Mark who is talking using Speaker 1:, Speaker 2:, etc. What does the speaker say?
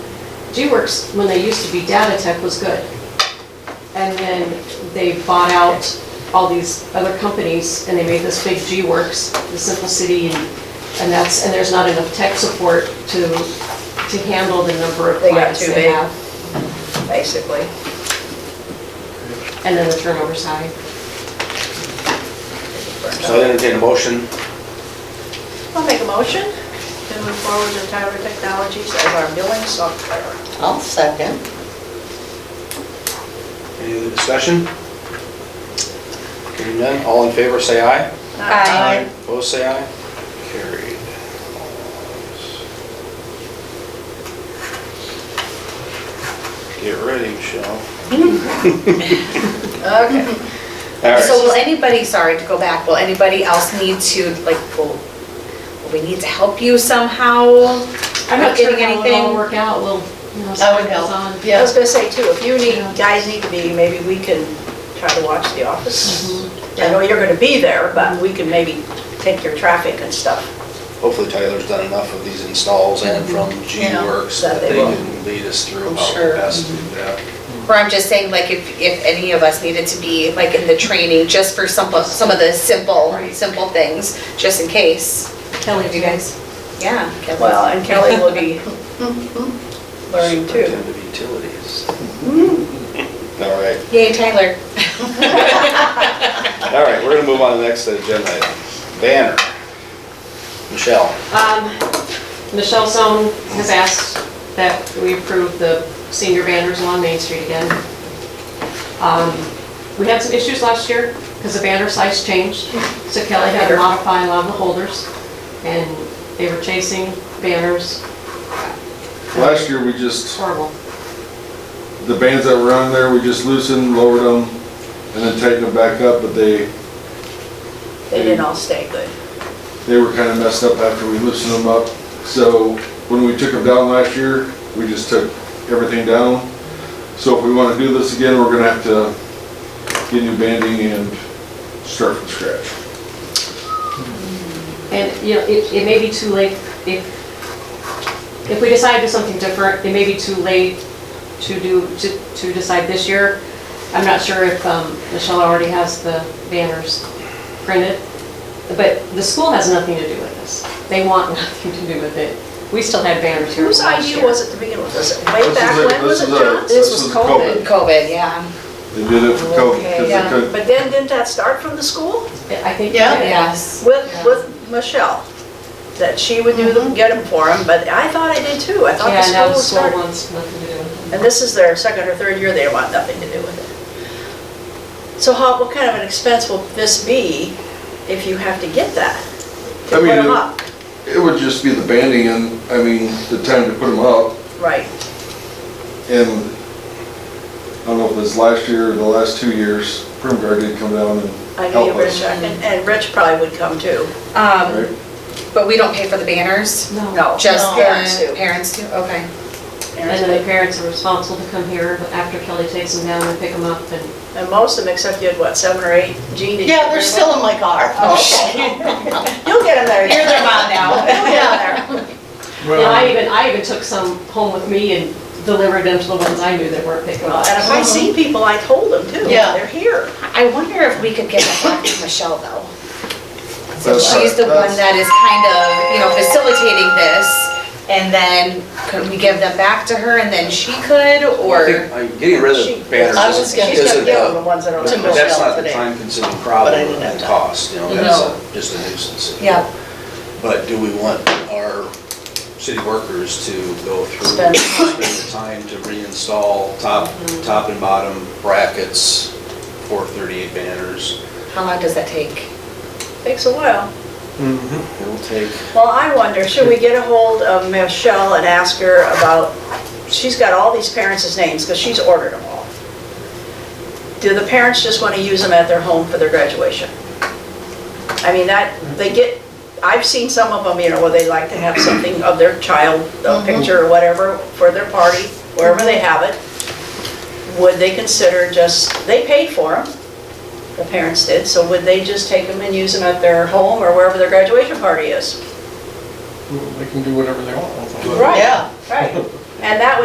Speaker 1: G-Works, when they used to be Data Tech, was good. And then they bought out all these other companies, and they made this big G-Works, the Simple City, and and that's, and there's not enough tech support to, to handle the number of
Speaker 2: They got
Speaker 1: clients
Speaker 2: too
Speaker 1: they
Speaker 2: big.
Speaker 1: have.
Speaker 2: basically.
Speaker 1: And then the turnover's high.
Speaker 3: So I entertain a motion,
Speaker 2: I'll make a motion to move forward with Tyler Technologies as our billing software.
Speaker 4: I'll second.
Speaker 3: any other discussion? Hearing none, all in favor, say aye.
Speaker 4: Aye.
Speaker 3: Opposed, say aye. Carried. Get ready, Michelle.
Speaker 2: Okay.
Speaker 3: All
Speaker 5: So
Speaker 3: right,
Speaker 5: will anybody, sorry to go back, will anybody else need to, like, will, will we need to help you somehow?
Speaker 1: I'm not sure
Speaker 5: Getting
Speaker 1: how it'll all
Speaker 5: anything?
Speaker 1: work out, we'll, you know,
Speaker 4: That
Speaker 1: see what
Speaker 4: would
Speaker 1: goes
Speaker 4: help.
Speaker 1: on.
Speaker 2: I was gonna say too, if you need,
Speaker 1: Yeah.
Speaker 2: guys need to be, maybe we can try to watch The Office.
Speaker 4: Mhm.
Speaker 2: I know you're gonna be there, but we can maybe take your traffic and stuff.
Speaker 3: hopefully Tyler's done enough of these installs and from
Speaker 2: Yeah,
Speaker 3: G-Works
Speaker 2: that
Speaker 3: that
Speaker 2: they
Speaker 3: they
Speaker 2: will.
Speaker 3: can lead us through
Speaker 4: I'm
Speaker 3: how
Speaker 4: sure.
Speaker 3: best to do that.
Speaker 5: Or I'm just saying, like, if, if any of us needed to be, like, in the training, just for some, of- some of the simple,
Speaker 1: Right.
Speaker 5: simple things, just in case.
Speaker 1: Kelly, do you guys?
Speaker 5: Yeah. Kelly.
Speaker 2: Well, and Kelly will be learning too.
Speaker 3: Superintendent of Utilities. All right.
Speaker 5: Yay, Tyler.
Speaker 3: All right, we're gonna move on to the next agenda item. Banner. Michelle,
Speaker 1: Um, Michelle Zone has asked that we approve the senior banners along Main Street again. Um, We had some issues last year because the banner size changed, so Kelly had to modify a lot of the holders, and they were chasing banners,
Speaker 6: Last year, we just,
Speaker 1: horrible.
Speaker 6: the bands that were on there, we just loosened, lowered them, and then tightened them back up, but they,
Speaker 2: They didn't all stay good.
Speaker 6: they were kind of messed up after we loosened them up. So when we took them down last year, we just took everything down. So if we want to do this again, we're gonna have to get new banding and start from scratch.
Speaker 1: And, you know, it, it may be too late, if, if we decide to do something different, it may be too late to do, to, to decide this year. I'm not sure if, um, Michelle already has the banners printed, but the school has nothing to do with this. They want nothing to do with it. We still had banners here
Speaker 2: Whose
Speaker 1: last
Speaker 2: idea
Speaker 1: year.
Speaker 2: was it to begin with? Was it way
Speaker 6: This is
Speaker 2: back
Speaker 6: a-
Speaker 2: when? Was
Speaker 6: this
Speaker 2: it
Speaker 6: is a-
Speaker 2: John's?
Speaker 6: This was COVID.
Speaker 5: COVID, yeah.
Speaker 6: They did it for COVID,
Speaker 2: Okay,
Speaker 6: because they couldn't,
Speaker 2: But then, didn't that start from the school?
Speaker 1: I think.
Speaker 4: Yeah.
Speaker 5: Yes.
Speaker 2: With, with Michelle, that she would do
Speaker 4: Mm-hmm.
Speaker 2: them, get them for him, but I thought I did too, I thought
Speaker 1: Yeah, now
Speaker 2: the
Speaker 1: the
Speaker 2: school
Speaker 1: school
Speaker 2: started.
Speaker 1: wants nothing to do with it.
Speaker 2: And this is their second or third year, they want nothing to do with it. So how, what kind of an expense will this be if you have to get that? To
Speaker 6: I
Speaker 2: put
Speaker 6: mean,
Speaker 2: them
Speaker 6: it-
Speaker 2: up,
Speaker 6: it would just be the banding and, I mean, the time to put them up.
Speaker 2: right,
Speaker 6: And I don't know if it's last year or the last two years, Prim Guard did come down and
Speaker 2: I know
Speaker 6: help
Speaker 2: you were
Speaker 6: us.
Speaker 2: checking, and Rich probably would come too.
Speaker 5: Um,
Speaker 6: right?
Speaker 5: but we don't pay for the banners?
Speaker 2: No.
Speaker 5: Just
Speaker 2: Parents
Speaker 5: the
Speaker 2: do.
Speaker 5: parents do? Okay.
Speaker 1: And then the parents are responsible to come here after Kelly takes them down and pick them up and
Speaker 2: And most of them, except you had what, seven or eight, Jean? did you
Speaker 4: Yeah, they're
Speaker 2: bring
Speaker 4: still
Speaker 2: one?
Speaker 4: in my car.
Speaker 5: Oh,
Speaker 2: Okay. You'll get them there.
Speaker 5: You're their mom now.
Speaker 2: You'll get them there.
Speaker 1: You know, I even, I even took some home with me and delivered them to the ones I knew that weren't picking
Speaker 2: Well,
Speaker 1: up.
Speaker 2: And if I see people, I told them too,
Speaker 4: Yeah.
Speaker 2: they're here.
Speaker 5: I wonder if we could get that back to Michelle, though. So
Speaker 6: That's-
Speaker 5: she's the one
Speaker 6: that's-
Speaker 5: that is kind of, you know, facilitating this, and then could we give them back to her, and then she could,
Speaker 3: I
Speaker 5: or?
Speaker 3: think, uh, getting rid
Speaker 2: She-
Speaker 3: of banners
Speaker 4: I was
Speaker 3: isn't,
Speaker 4: gonna-
Speaker 2: She's gonna
Speaker 3: isn't,
Speaker 2: give them the
Speaker 3: uh,
Speaker 2: ones that are.
Speaker 4: To
Speaker 2: left.
Speaker 4: Michelle
Speaker 3: that's not the
Speaker 4: today,
Speaker 3: time consuming
Speaker 4: but I
Speaker 3: problem
Speaker 4: didn't have
Speaker 3: and
Speaker 4: time.
Speaker 3: cost, you know, that's
Speaker 4: No.
Speaker 3: a- just a nuisance.
Speaker 5: Yeah.
Speaker 3: But do we want our city workers to go through,
Speaker 2: Spend-
Speaker 3: spend the time to reinstall top, top and bottom brackets for 38 banners?
Speaker 5: How long does that take?
Speaker 2: Takes a while.
Speaker 3: It'll take
Speaker 2: Well, I wonder, should we get a hold of Michelle and ask her about, she's got all these parents' names, because she's ordered them all. Do the parents just want to use them at their home for their graduation? I mean, that, they get, I've seen some of them, you know, where they like to have something of their child, a picture or whatever, for their party, wherever they have it. Would they consider just, they paid for them, the parents did, so would they just take them and use them at their home or wherever their graduation party is?
Speaker 7: They can do whatever they want with them.
Speaker 4: Yeah.
Speaker 2: Right. And that